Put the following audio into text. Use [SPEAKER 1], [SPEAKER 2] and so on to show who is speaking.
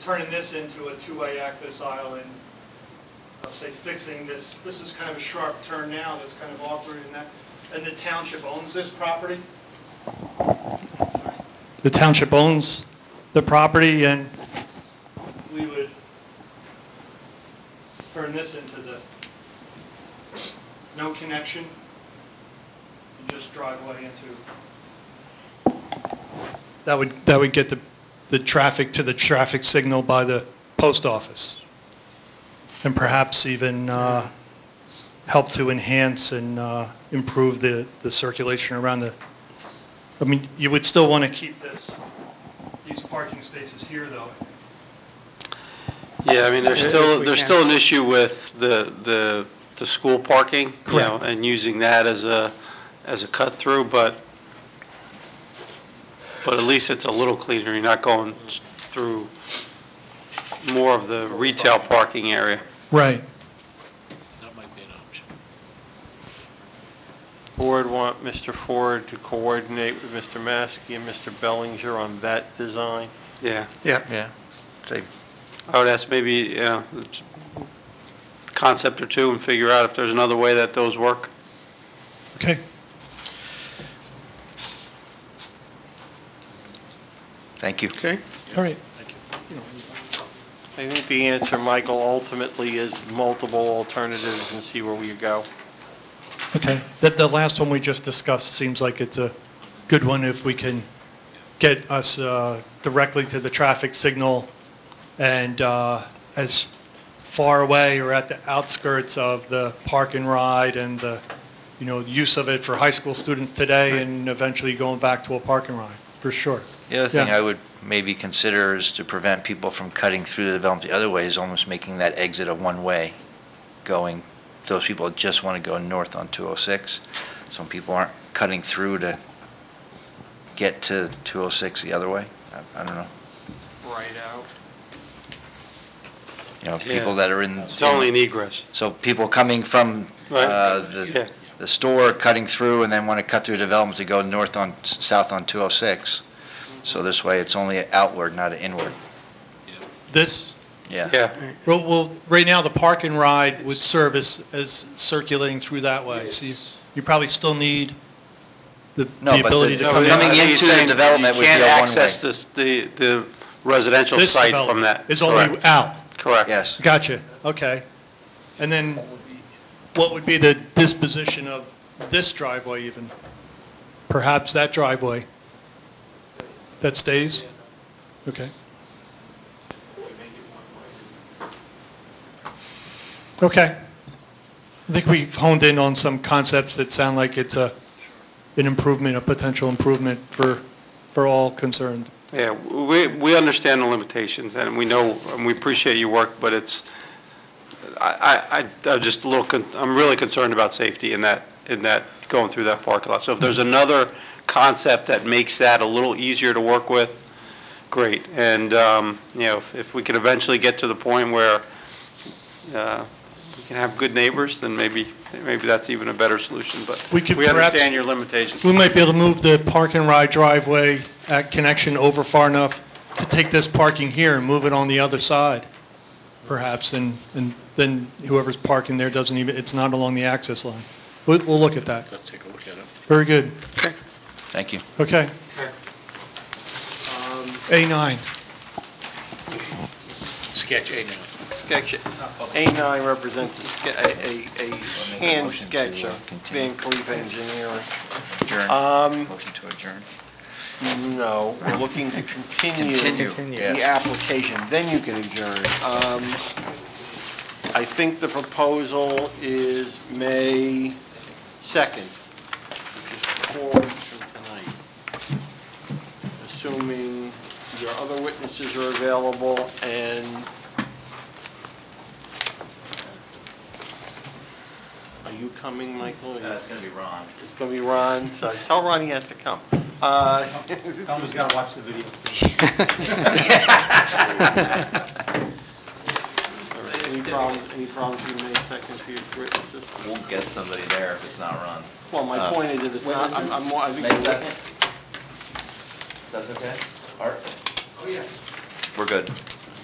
[SPEAKER 1] turning this into a two-way access aisle and, I'll say, fixing this, this is kind of a sharp turn now that's kind of awkward and that, and the township owns this property? The township owns the property and we would turn this into the no connection and just driveway into. That would, that would get the, the traffic to the traffic signal by the post office. And perhaps even uh, help to enhance and uh, improve the, the circulation around the, I mean, you would still want to keep this, these parking spaces here, though.
[SPEAKER 2] Yeah, I mean, there's
[SPEAKER 3] If- if
[SPEAKER 2] still,
[SPEAKER 3] we
[SPEAKER 2] there's
[SPEAKER 3] can.
[SPEAKER 2] still an issue with the, the, the school parking, you know,
[SPEAKER 1] Correct.
[SPEAKER 2] and using that as a, as a cut-through, but, but at least it's a little cleaner, you're not going through more of the retail parking area.
[SPEAKER 1] Right.
[SPEAKER 4] That might be an option.
[SPEAKER 5] Board want Mr. Ford to coordinate with Mr. Maskey and Mr. Bellinger on that design.
[SPEAKER 2] Yeah,
[SPEAKER 3] Yeah.
[SPEAKER 2] I would ask maybe, yeah, it's a concept or two and figure out if there's another way that those work.
[SPEAKER 1] Okay.
[SPEAKER 3] Thank you.
[SPEAKER 5] Okay.
[SPEAKER 1] All right.
[SPEAKER 5] I think the answer, Michael, ultimately is multiple alternatives and see where we go.
[SPEAKER 1] Okay. That, the last one we just discussed seems like it's a good one if we can get us uh, directly to the traffic signal and uh, as far away or at the outskirts of the park and ride and the, you know, use of it for high school students today and eventually going back to a park and ride, for sure.
[SPEAKER 3] The other thing
[SPEAKER 1] Yeah.
[SPEAKER 3] I would maybe consider is to prevent people from cutting through the development the other way is almost making that exit a one-way going. Those people that just want to go north on 206. Some people aren't cutting through to get to 206 the other way. I- I don't know.
[SPEAKER 5] Right out.
[SPEAKER 3] You know,
[SPEAKER 2] Yeah.
[SPEAKER 3] people that are in.
[SPEAKER 2] It's only an egress.
[SPEAKER 3] So people coming from
[SPEAKER 2] Right.
[SPEAKER 3] uh,
[SPEAKER 2] Yeah.
[SPEAKER 3] the the store, cutting through, and then want to cut through development to go north on, s- south on 206. So this way, it's only outward, not inward.
[SPEAKER 1] This,
[SPEAKER 3] Yeah.
[SPEAKER 2] Yeah,
[SPEAKER 1] well, well, right now, the park and ride would service as circulating through that way. So you- you probably still need the the
[SPEAKER 3] No, but
[SPEAKER 1] ability to
[SPEAKER 3] the-
[SPEAKER 1] come in.
[SPEAKER 3] coming
[SPEAKER 2] I think he's
[SPEAKER 3] into the
[SPEAKER 2] saying
[SPEAKER 3] development would be
[SPEAKER 2] You
[SPEAKER 3] a
[SPEAKER 2] can't
[SPEAKER 3] one-way.
[SPEAKER 2] access this, the, the residential
[SPEAKER 1] This
[SPEAKER 2] site from
[SPEAKER 1] development
[SPEAKER 2] that.
[SPEAKER 1] Is only
[SPEAKER 2] Correct.
[SPEAKER 1] out.
[SPEAKER 2] Correct.
[SPEAKER 3] Yes.
[SPEAKER 1] Gotcha, okay. And then what would be the disposition of this driveway even? Perhaps that driveway? That stays? Okay. Okay. I think we've honed in on some concepts that sound like it's a, an improvement, a potential improvement for, for all concerned.
[SPEAKER 2] Yeah, we, we understand the limitations, and we know, and we appreciate your work, but it's, I, I, I- I'm just a little, con- I'm really concerned about safety in that, in that, going through that parking lot. So if there's another concept that makes that a little easier to work with, great. And, um, you know, if, if we could eventually get to the point where, uh, we can have good neighbors, then maybe, maybe that's even a better solution, but
[SPEAKER 1] We could
[SPEAKER 2] we
[SPEAKER 1] perhaps-
[SPEAKER 2] understand your limitations.
[SPEAKER 1] We might be able to move the park and ride driveway at connection over far enough to take this parking here and move it on the other side, perhaps, and, and then whoever's parking there doesn't even, it's not along the access line. We'll, we'll look at that.
[SPEAKER 4] Let's take a look at it.
[SPEAKER 1] Very good.
[SPEAKER 3] Thank you.
[SPEAKER 1] Okay. A9.
[SPEAKER 4] Sketch A now.
[SPEAKER 5] Sketch, A9 represents a, ske- a- a, a hand
[SPEAKER 3] motion to,
[SPEAKER 5] sketch
[SPEAKER 3] uh,
[SPEAKER 5] of
[SPEAKER 3] continue.
[SPEAKER 5] Van Cleef Engineering.
[SPEAKER 3] Adjourn.
[SPEAKER 5] Um,
[SPEAKER 3] Motion to adjourn.
[SPEAKER 5] No, we're looking to continue.
[SPEAKER 3] Continue,
[SPEAKER 5] The
[SPEAKER 3] yes.
[SPEAKER 5] application, then you can adjourn. Um, I think the proposal is May 2nd, which is four from tonight. Assuming your other witnesses are available and are you coming, Michael?
[SPEAKER 6] Uh,
[SPEAKER 5] It's
[SPEAKER 3] going to be Ron.
[SPEAKER 5] going to be Ron, so tell Ron he has to come. Uh,
[SPEAKER 7] Someone's gotta watch the video.
[SPEAKER 5] Any problems, any problems with May 2nd for your witnesses?
[SPEAKER 6] We'll get somebody there if it's not run.
[SPEAKER 5] Well, my
[SPEAKER 6] Uh,
[SPEAKER 5] point is that it's not, I'm, I'm more- I think.
[SPEAKER 6] May second? Doesn't it? Art? Oh, yeah. We're good.